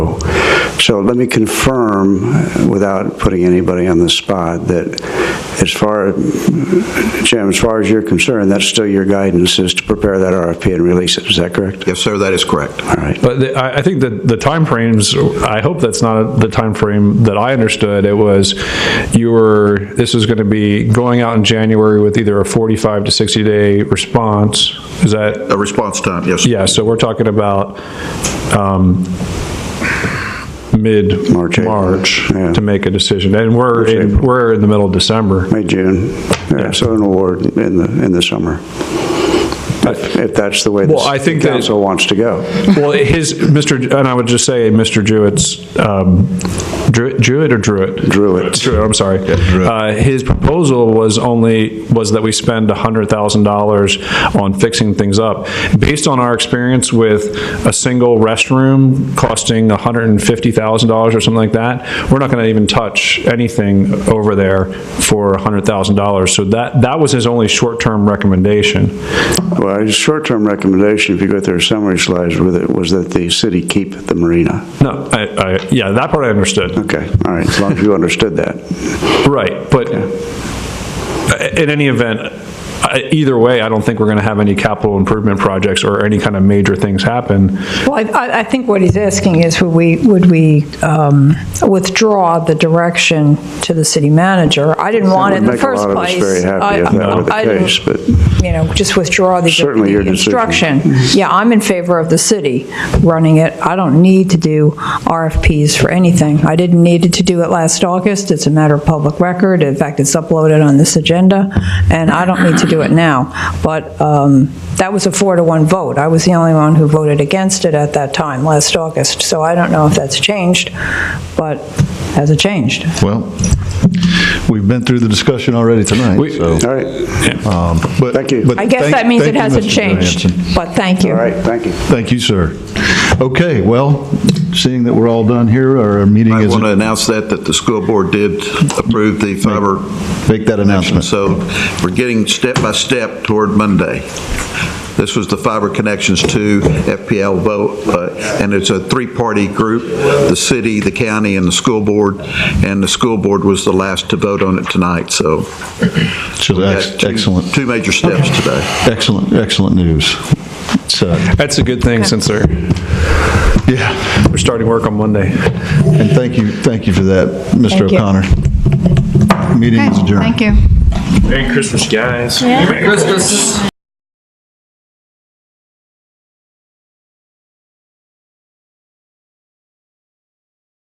So let me confirm, uh, without putting anybody on the spot, that as far, Jim, as far as you're concerned, that's still your guidance, is to prepare that RFP and release it, is that correct? Yes, sir, that is correct. All right. But the- I, I think that the timeframes, I hope that's not the timeframe that I understood. It was, you were, this is going to be going out in January with either a 45 to 60 day response. Is that, A response time, yes. yeah, so we're talking about um, March, mid-March April, yeah. to make a decision. And we're, in- April. we're in the middle of December. May, June, Yeah, so an award in the, in the summer, if if that's the way Well, I the think that- council wants to go. Well, his, Mr., Ju- and I would just say, Mr. Jewett's, um, Dru- Jewett or Druitt? Druitt. Druitt, I'm sorry. Uh, His proposal was only, was that we spend $100,000 on fixing things up. Based on our experience with a single restroom costing $150,000 or something like that, we're not going to even touch anything over there for $100,000. So that, that was his only short-term recommendation. Well, his short-term recommendation, if you go through our summary slides with it, was that the city keep the marina. No, I, I, yeah, that part I understood. Okay, all right, as long as you understood that. Right, but in any event, I- either way, I don't think we're going to have any capital improvement projects or any kind of major things happen. Well, I- I, I think what he's asking is, would we, would we um, withdraw the direction to the city manager? I didn't want it in the first Would make place. a lot of us very happy if I- that were the I didn't- case, but You know, just withdraw the Certainly your the decision. instruction. Yeah, I'm in favor of the city running it. I don't need to do RFPs for anything. I didn't need to do it last August. It's a matter of public record. In fact, it's uploaded on this agenda, and I don't need to do it now. But um, that was a four to one vote. I was the only one who voted against it at that time, last August. So I don't know if that's changed, but has it changed? Well, we've been through the discussion already tonight, We- so. All right, um, but- Thank you. but I guess thank- that means thank it you, hasn't Mr. changed, Johansson. but thank you. all right, thank you. Thank you, sir. Okay, well, seeing that we're all done here, our meeting I is, want to announce that, that the school board did approve the fiber. make that announcement. So we're getting step by step toward Monday. This was the fiber connections to FPL vote, uh, and it's a three-party group, the city, the county, and the school board, and the school board was the last to vote on it tonight, so. So we that's got two- excellent. Two major steps today. Excellent, excellent news. So, That's a good thing since they're, yeah, we're starting work on Monday. and thank you, thank you for that, Mr. Thank you. O'Connor. Meeting is adjourned. Thank you. Merry Christmas, guys. Christmas.